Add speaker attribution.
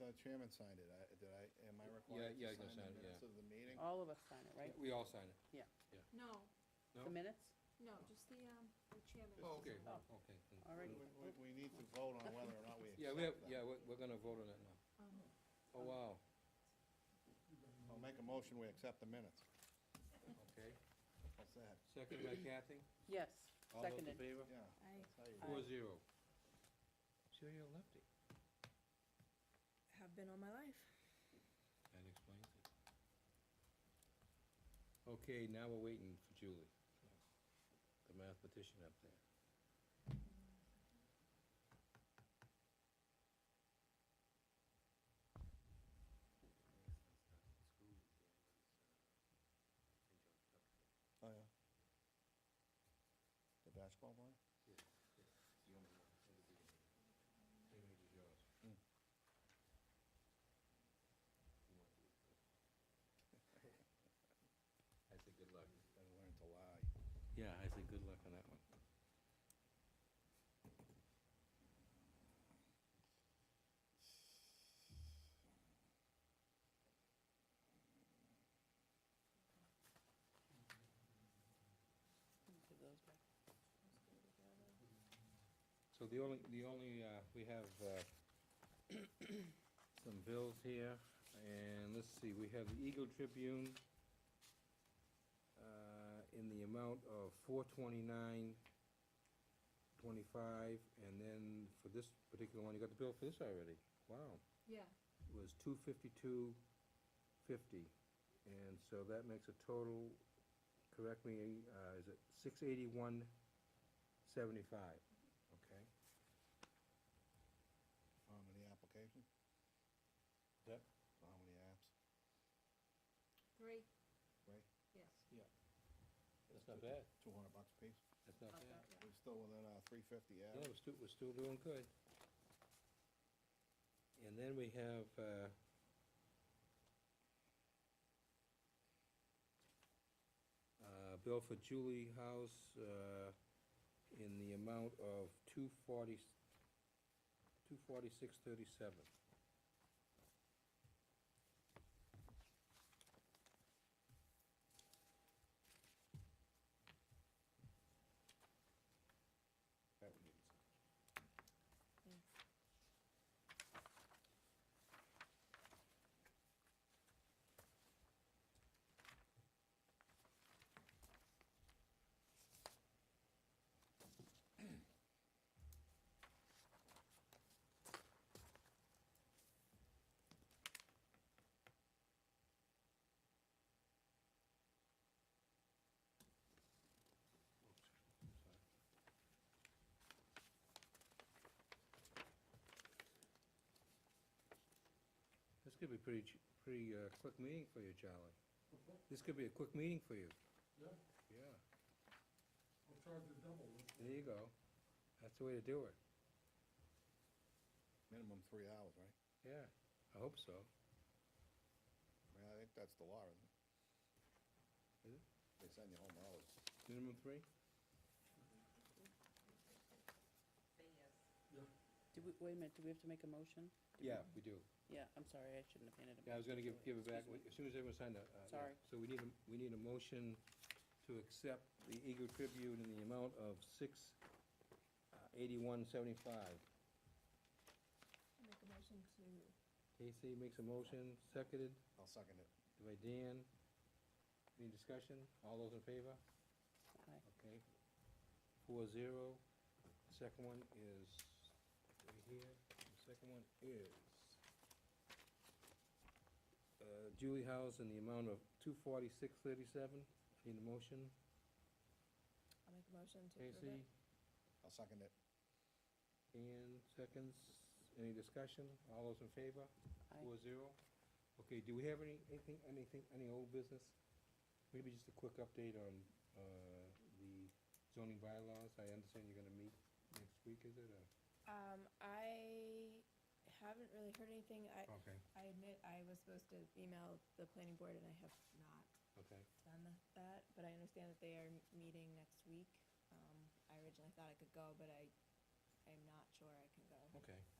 Speaker 1: uh, chairman signed it, I, did I, am I
Speaker 2: Yeah,
Speaker 1: required
Speaker 2: yeah,
Speaker 1: to
Speaker 2: you can
Speaker 1: sign
Speaker 2: sign it,
Speaker 1: the minutes
Speaker 2: yeah.
Speaker 1: of the meeting?
Speaker 3: All of us sign it, right?
Speaker 2: We all sign it.
Speaker 4: No,
Speaker 2: No?
Speaker 3: The minutes?
Speaker 4: no, just the, um, the chairman.
Speaker 2: Oh, okay,
Speaker 3: Oh.
Speaker 2: okay. then.
Speaker 3: All right.
Speaker 1: We, we- we need to vote on whether or not we
Speaker 2: Yeah, we have,
Speaker 1: accept
Speaker 2: yeah,
Speaker 1: that.
Speaker 2: we're, we're gonna vote on it now.
Speaker 4: Um,
Speaker 2: Oh, wow,
Speaker 1: I'll make a motion, we accept the minutes.
Speaker 2: okay.
Speaker 1: What's that?
Speaker 2: Second by Kathy,
Speaker 3: Yes,
Speaker 2: all those in
Speaker 3: seconded.
Speaker 2: favor?
Speaker 1: Yeah.
Speaker 4: I,
Speaker 1: that's how you
Speaker 2: Four
Speaker 1: vote.
Speaker 2: zero. So you're a lefty.
Speaker 4: have been all my life.
Speaker 2: That explains it. Okay, now we're waiting for Julie, the mathematician up there.
Speaker 1: Oh, yeah. The basketball player? Mm.
Speaker 2: I said good luck.
Speaker 1: Better learn to lie.
Speaker 2: Yeah, I said good luck on that one.
Speaker 3: Give those back.
Speaker 2: So the only, the only, uh, we have, uh, some bills here, and let's see, we have the Eagle Tribune, uh, in the amount of four twenty-nine twenty-five, and then for this particular one, you got the bill for this already, wow.
Speaker 4: Yeah,
Speaker 2: It was two fifty-two fifty, and so that makes a total, correct me, uh, is it six eighty-one seventy-five? Okay.
Speaker 1: How many applications?
Speaker 2: Yep.
Speaker 1: How many apps?
Speaker 4: three,
Speaker 1: Right?
Speaker 4: yes.
Speaker 2: That's not bad.
Speaker 1: Two hundred bucks a piece?
Speaker 2: That's not
Speaker 4: Not
Speaker 2: bad.
Speaker 4: bad, yeah.
Speaker 1: We're still within our three fifty
Speaker 2: Yeah,
Speaker 1: average.
Speaker 2: we're still, we're still doing good. And then we have, uh, uh, bill for Julie House, uh, in the amount of two forty, two forty-six thirty-seven. That one is- This could be pretty, ch- pretty, uh, quick meeting for you, Charlie. This could be a quick meeting for you.
Speaker 5: Yeah,
Speaker 2: Yeah.
Speaker 5: I'll charge the double.
Speaker 2: There you go. That's the way to do it.
Speaker 1: Minimum three hours, right?
Speaker 2: Yeah, I hope so.
Speaker 1: I mean, I think that's the law, isn't it?
Speaker 2: Is it?
Speaker 1: They send you home early.
Speaker 2: Minimum three?
Speaker 3: Do we, wait a minute, do we have to make a motion? Do we-
Speaker 2: Yeah, we do.
Speaker 3: Yeah, I'm sorry, I shouldn't have handed it.
Speaker 2: Yeah, I was gonna give, give it back,
Speaker 3: Excuse me.
Speaker 2: as soon as everyone signed up. uh, yeah.
Speaker 3: Sorry.
Speaker 2: So we need a, we need a motion to accept the Eagle Tribune in the amount of six uh, eighty-one seventy-five.
Speaker 4: I Make a motion to,
Speaker 2: Casey makes a motion, seconded
Speaker 1: I'll second it.
Speaker 2: by Dan. Any discussion? All those in favor?
Speaker 3: Aye.
Speaker 2: Okay. Four zero. Second one is right here. The second one is uh, Julie House in the amount of two forty-six thirty-seven. Need a motion?
Speaker 4: I'll make a motion to approve
Speaker 2: Casey,
Speaker 4: it.
Speaker 1: I'll second it.
Speaker 2: Dan, seconds. Any discussion? All those in favor?
Speaker 3: Aye.
Speaker 2: Four zero. Okay, do we have any, anything, anything, any old business? Maybe just a quick update on, uh, the zoning bylaws. I understand you're gonna meet next week, is it, or?
Speaker 6: Um, I haven't really heard anything. I,
Speaker 2: Okay,
Speaker 6: I admit I was supposed to email the planning board and I have not
Speaker 2: okay.
Speaker 6: done tha- that, but I understand that they are m- meeting next week. Um, I originally thought I could go, but I, I'm not sure I can go.
Speaker 2: Okay.